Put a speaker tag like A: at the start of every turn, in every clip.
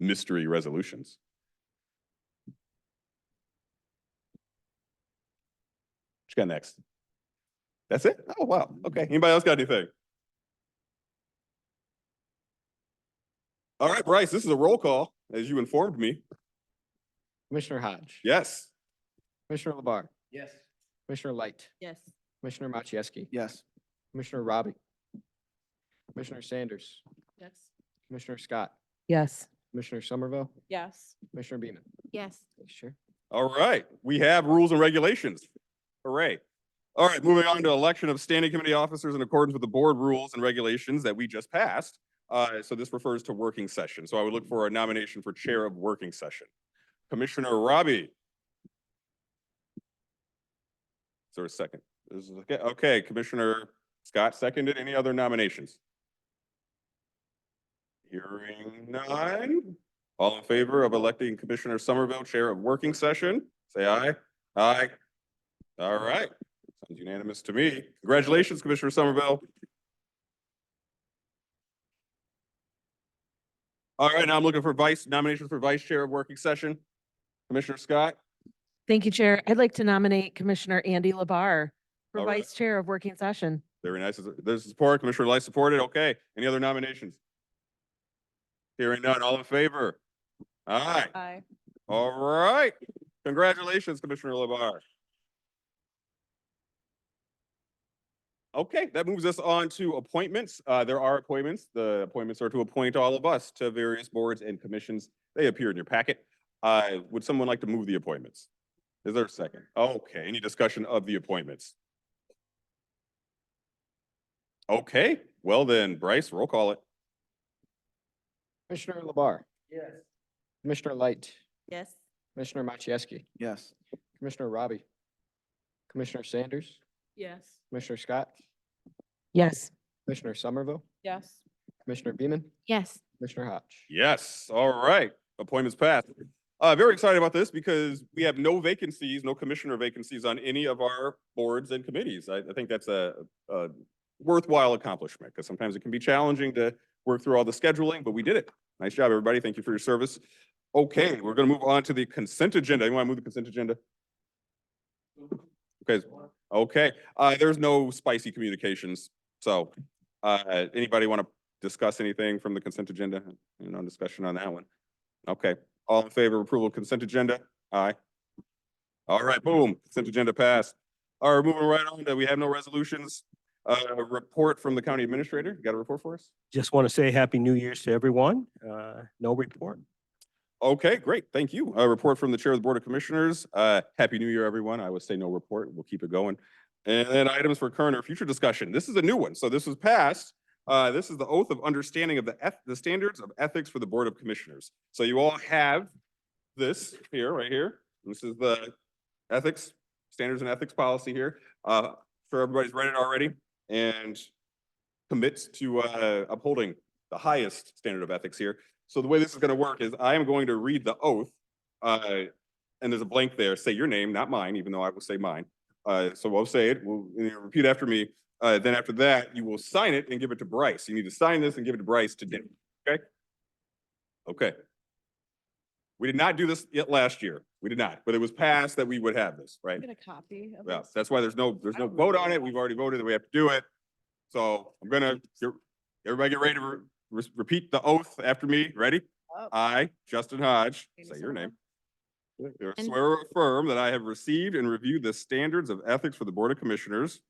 A: mystery resolutions. What you got next? That's it? Oh, wow. Okay. Anybody else got anything? All right, Bryce, this is a roll call, as you informed me.
B: Commissioner Hodge.
A: Yes.
B: Commissioner Labar.
C: Yes.
B: Commissioner Light.
D: Yes.
B: Commissioner Machieski.
C: Yes.
B: Commissioner Robbie. Commissioner Sanders.
D: Yes.
B: Commissioner Scott.
D: Yes.
B: Commissioner Somerville.
D: Yes.
B: Commissioner Beaman.
D: Yes.
B: Sure.
A: All right, we have rules and regulations. Hooray. All right, moving on to election of standing committee officers in accordance with the board rules and regulations that we just passed. Uh, so this refers to working session. So I would look for a nomination for chair of working session. Commissioner Robbie. Is there a second? Is- okay- Okay, Commissioner Scott seconded. Any other nominations? Hearing none. All in favor of electing Commissioner Somerville Chair of Working Session, say aye. Aye. All right, sounds unanimous to me. Congratulations, Commissioner Somerville. All right, now I'm looking for vice nominations for Vice Chair of Working Session. Commissioner Scott,
E: Thank you, Chair. I'd like to nominate Commissioner Andy Labar for
A: All right.
E: Vice Chair of Working Session.
A: very nice. There's support. Commissioner Light supported. Okay, any other nominations? Hearing none, all in favor? Aye.
D: Aye.
A: All right. Congratulations, Commissioner Labar. Okay, that moves us on to appointments. Uh, there are appointments. The appointments are to appoint all of us to various boards and commissions. They appear in your packet. Uh, would someone like to move the appointments? Is there a second? Okay, any discussion of the appointments? Okay, well then, Bryce, roll call it.
B: Commissioner Labar.
C: Yes.
B: Commissioner Light.
D: Yes.
B: Commissioner Machieski.
C: Yes.
B: Commissioner Robbie. Commissioner Sanders.
D: Yes.
B: Commissioner Scott.
E: Yes.
B: Commissioner Somerville.
D: Yes.
B: Commissioner Beaman.
E: Yes.
B: Commissioner Hodge.
A: Yes, all right, appointments passed. Uh, very excited about this because we have no vacancies, no commissioner vacancies on any of our boards and committees. I, I think that's a, a worthwhile accomplishment because sometimes it can be challenging to work through all the scheduling, but we did it. Nice job, everybody. Thank you for your service. Okay, we're gonna move on to the consent agenda. You want to move the consent agenda? Okay, okay, uh, there's no spicy communications, so, uh, anybody want to discuss anything from the consent agenda? No discussion on that one. Okay, all in favor of approval of consent agenda? Aye. All right, boom, consent agenda passed. All right, moving right on, to we have no resolutions. Uh, report from the county administrator, You got a report for us?
F: Just want to say Happy New Year's to everyone. Uh, No report.
A: Okay, great, thank you. A report from the Chair of the Board of Commissioners. Uh, Happy New Year, everyone. I would say no report, we'll keep it going. And then items for current or future discussion. This is a new one, so this was passed. Uh, this is the oath of understanding of the eth- the standards of ethics for the Board of Commissioners. So you all have this here, right here. This is the ethics, standards and ethics policy here. Uh, sure everybody's read it already and commits to, uh, upholding the highest standard of ethics here. So the way this is gonna work is I am going to read the oath. Uh, and there's a blank there, say your name, not mine, even though I will say mine. Uh, so I'll say it, we'll, and you'll repeat after me. Uh, then after that, you will sign it and give it to Bryce. You need to sign this and give it to Bryce today, okay? Okay. We did not do this yet last year. We did not, but it was passed that we would have this, right?
D: Get a copy of
A: Yeah,
D: this.
A: that's why there's no, there's
D: I
A: no
D: don't
A: vote
D: really
A: on it. We've already voted that we have to do it. So I'm gonna, get- everybody get ready to re- re- repeat the oath after me. Ready?
D: Oh.
A: I, Justin Hodge, say your name. do Swear or affirm that I have received and reviewed the standards of ethics for the Board of Commissioners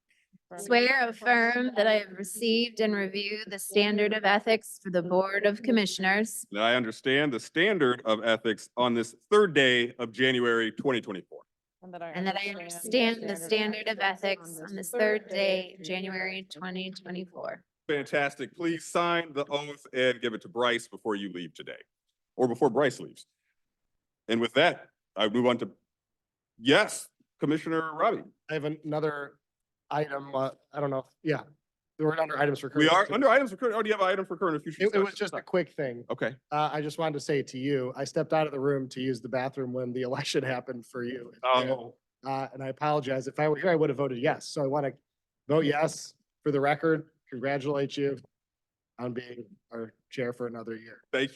G: Swear or affirm that I have received and reviewed the standard of ethics for the Board of Commissioners.
A: That I understand the standard of ethics on this third day of January twenty twenty-four.
G: And that I understand the standard of ethics on this third day, of January twenty twenty-four.
A: Fantastic. Please sign the oath and give it to Bryce before you leave today, or before Bryce leaves. And with that, I move on to, yes, Commissioner Robbie.
H: I have another item, uh, I don't know, if- yeah, we're under items for.
A: We
H: current
A: are
H: activity.
A: under items for current, oh, do you have an item for current and future?
H: It, it was
A: discussion?
H: just a quick thing.
A: Okay,
H: Uh, I just wanted to say to you, I stepped out of the room to use the bathroom when the election happened for you.
A: oh,
H: Uh, and I apologize. If I were here, I would have voted yes. So I want to vote yes for the record, congratulate you on being our chair for another year.
A: thank